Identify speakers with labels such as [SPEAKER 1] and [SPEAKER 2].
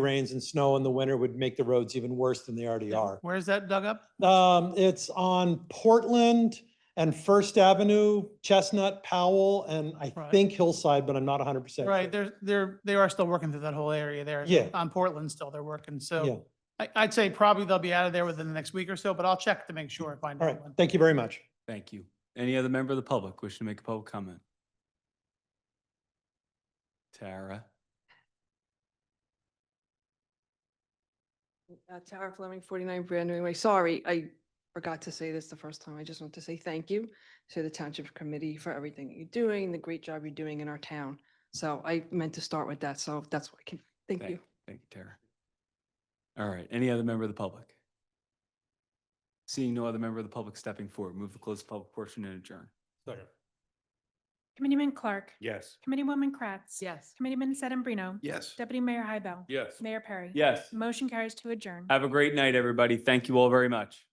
[SPEAKER 1] rains and snow in the winter would make the roads even worse than they already are.
[SPEAKER 2] Where's that dug up?
[SPEAKER 1] Um, it's on Portland and First Avenue, Chestnut, Powell, and I
[SPEAKER 2] Right.
[SPEAKER 1] think Hillside, but I'm not hundred percent.
[SPEAKER 2] Right, they're, they're, they are still working through that whole area there.
[SPEAKER 1] Yeah.
[SPEAKER 2] On Portland still, they're working,
[SPEAKER 1] Yeah,
[SPEAKER 2] so I, I'd say probably they'll be out of there within the next week or so, but I'll check to make sure, find
[SPEAKER 1] all
[SPEAKER 2] out.
[SPEAKER 1] right.
[SPEAKER 2] when.
[SPEAKER 1] Thank you very much.
[SPEAKER 3] Thank you. Any other member of the public wishing to make a public comment? Tara?
[SPEAKER 4] Uh, Tara Fleming, 49 Brand New Way. Sorry, I forgot to say this the first time. I just want to say thank you to the Township Committee for everything that you're doing, the great job you're doing in our town. So I meant to start with that, so that's what I can, thank you.
[SPEAKER 3] Thank you, Tara. All right, any other member of the public? Seeing no other member of the public stepping forward, move to close the public portion and adjourn.
[SPEAKER 5] Committeeman Clark.
[SPEAKER 6] Yes.
[SPEAKER 5] Committeeman Kratz.
[SPEAKER 4] Yes.
[SPEAKER 5] Committeeman Sedambrino.
[SPEAKER 6] Yes.
[SPEAKER 5] Deputy Mayor Hybel.
[SPEAKER 6] Yes.
[SPEAKER 5] Mayor Perry.
[SPEAKER 3] Yes,
[SPEAKER 5] Motion carries to adjourn.
[SPEAKER 3] have a great night, everybody. Thank you all very much.